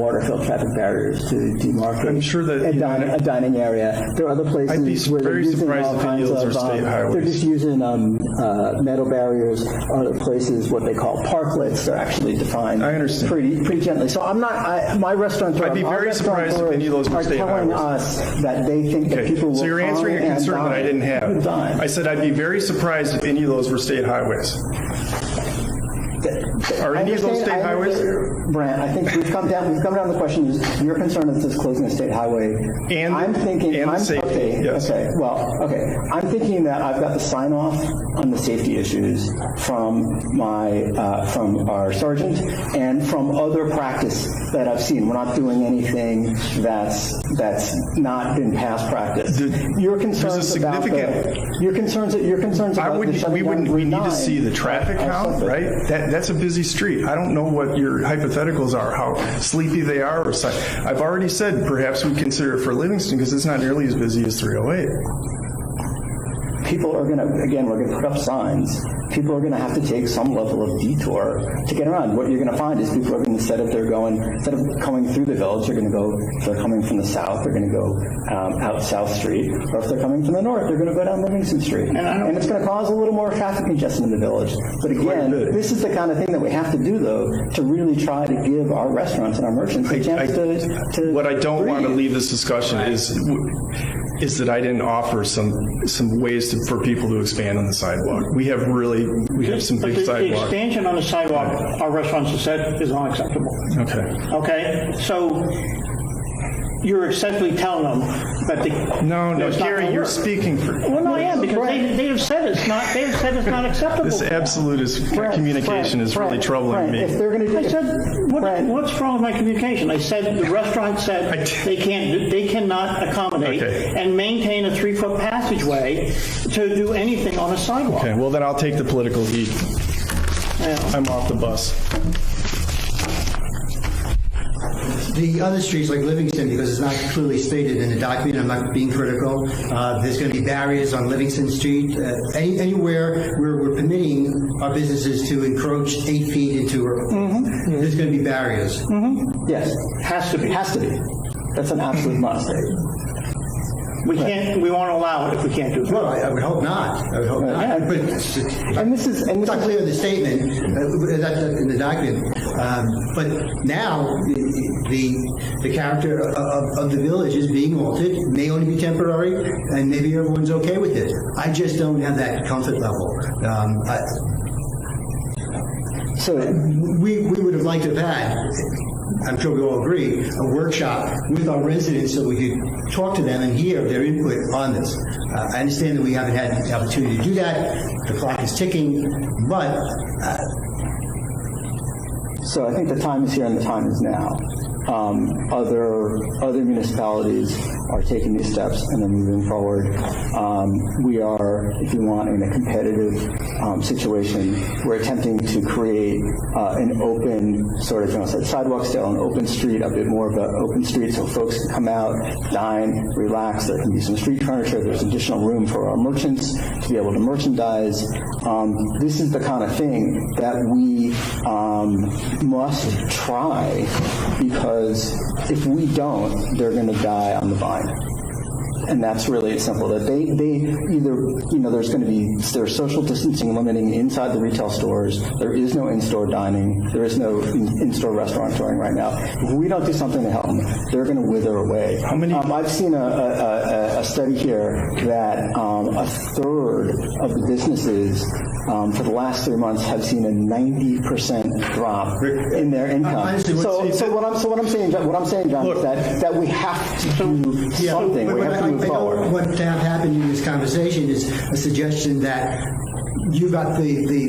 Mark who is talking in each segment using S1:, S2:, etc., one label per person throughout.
S1: water-filled traffic barriers to demarcate.
S2: I'm sure that,
S1: A
S2: you know,
S1: dining, a dining area. There are other
S2: I'd be
S1: places where they're
S2: very
S1: using
S2: surprised
S1: all
S2: if it
S1: kinds
S2: yields
S1: of,
S2: or state
S1: um, they're
S2: highways.
S1: just using, um, uh, metal barriers, other places, what they call parklets, they're actually defined.
S2: I understand.
S1: Pretty, pretty gently. So I'm not, I, my restaurant.
S2: I'd be very surprised if any of those were state
S1: Are telling
S2: highways.
S1: us that they think that
S2: Okay,
S1: people will.
S2: so you're answering a
S1: come and
S2: concern that I
S1: dine-
S2: didn't have.
S1: Dine.
S2: I said I'd be very surprised if any of those were state highways. Are any of those state
S1: understand- I
S2: highways?
S1: understand, Brant, I think we've come down, we've come down to the question, is your concern is this closing a state highway?
S2: And-
S1: I'm thinking,
S2: and
S1: I'm,
S2: safety,
S1: okay,
S2: yes.
S1: okay, well, okay. I'm thinking that I've got the sign off on the safety issues from my, uh, from our sergeant and from other practice that I've seen. We're not doing anything that's, that's not been past practice. Your concerns about the,
S2: significant-
S1: your concerns, your concerns
S2: I
S1: about the
S2: would, we
S1: shutting down
S2: wouldn't,
S1: Route
S2: we need to
S1: 9
S2: see the traffic
S1: are- are
S2: count,
S1: something.
S2: right? That, that's a busy street. I don't know what your hypotheticals are, how sleepy they are or such. I've already said perhaps we consider it for Livingston because it's not nearly as busy as 308.
S1: people are going to, again, we're going to put up signs. People are going to have to take some level of detour to get around. What you're going to find is people are going to, instead of they're going, instead of coming through the village, they're going to go, if they're coming from the south, they're going to go um, out South Street. Or if they're coming from the north, they're going to go down Livingston Street. And, it's going to cause a little more traffic congestion in the village. But again,
S2: bit.
S1: this is the kind of thing that we have to do, though, to really try to give our restaurants and our merchants a chance to, to.
S2: What I don't want to
S1: breathe.
S2: leave this discussion is, is that I didn't offer some, some ways to- for people to expand on the sidewalk. We have really, we have some
S3: But
S2: big
S3: the- the
S2: sidewalk.
S3: expansion on the sidewalk, our restaurants have said, is unacceptable.
S2: Okay.
S3: Okay, so you're essentially telling them that the.
S2: No, no,
S3: that's not
S2: Gary,
S3: gonna
S2: you're
S3: work.
S2: speaking for,
S3: Well, no, I am, because they, they have said it's not, they have said it's not acceptable.
S2: this absolute is, communication is really troubling
S1: Right,
S2: me.
S1: If they're going to do.
S3: I said, what,
S1: Brent.
S3: what's wrong with my communication? I said, the restaurant
S2: I
S3: said
S2: did-
S3: they can't, they cannot accommodate
S2: Okay.
S3: and maintain a three-foot passageway to do anything on a sidewalk.
S2: Okay, well, then I'll take the political heat. I'm off the bus.
S4: The other streets like Livingston, because it's not clearly stated in the document, I'm not being critical, uh, there's going to be barriers on Livingston Street. Uh, any- Anywhere where we're permitting our businesses to encroach eight feet into, there's going to be barriers.
S1: Mm-hmm. Yes.
S3: Has to be.
S1: Has to be. That's an absolute must.
S3: We can't, we won't allow it if we can't do it.
S4: Well, I I would hope not, I would hope
S1: Yeah.
S4: not. But it's
S1: And this is, and
S4: it's
S1: this
S4: not
S1: is,
S4: clear in the statement, uh, that- that- in the document. Um, But now, the, the character of- of, of the village is being altered, may only be temporary, and maybe everyone's okay with it. I just don't have that comfort level. Um, I-
S1: so,
S4: We, we would have liked to have had, I'm sure we all agree, a workshop with our residents so we could talk to them and hear their input on this. Uh, I understand that we haven't had the opportunity to do that, the clock is ticking, but
S1: so I think the time is here and the time is now. Um, other, other municipalities are taking these steps and they're moving forward. Um, we are, if you want, in a competitive um, situation. We're attempting to create uh, an open sort of, you know, sidewalk style, an open street, a bit more of an open street so folks can come out, dine, relax. There can be some street furniture. There's additional room for our merchants to be able to merchandise. Um, this is the kind of thing that we um, must try because if we don't, they're going to die on the vine. And that's really it simple. That they, they either, you know, there's going to be there's social distancing limiting inside the retail stores. There is no in-store dining. There is no in- in-store restaurant touring right now. If we don't do something to help them, they're going to wither away. How
S2: many-
S1: Um, I've seen a, a, a- a study here that um, a third of the businesses um, for the last three months have seen a 90% drop in their income.
S4: Honestly, what's-
S1: So, so what I'm so what I'm saying, John- what I'm saying, John, is that that we have to do something. We
S4: But
S1: have to
S4: what
S1: move
S4: I- I don't-
S1: forward.
S4: What to have happened in this conversation is a suggestion that you got the, the,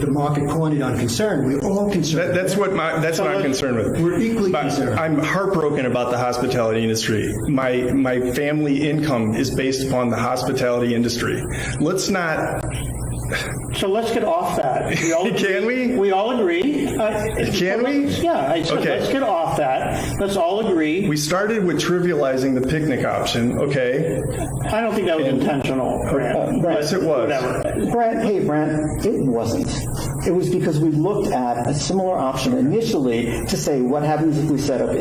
S4: the- the market cornered on concern. We're all
S2: That-
S4: concerned.
S2: That's what my, that's what I'm concerned with.
S4: We're equally
S2: But
S4: concerned.
S2: I'm heartbroken about the hospitality industry. My, my family income is based upon the hospitality industry. Let's not,
S3: So let's get off that. We all-
S2: Can we?
S3: We all agree.
S2: Can
S3: Can
S2: we?
S3: Yeah, I said,
S2: Okay.
S3: let's get off that. Let's all agree.
S2: we started with trivializing the picnic option, okay?
S3: I don't think that was intentional, Grant.
S2: Yes, it was.
S3: Whatever.
S1: Brent, hey, Brent, it wasn't. It was because we looked at a similar option initially to say, what happens if we set up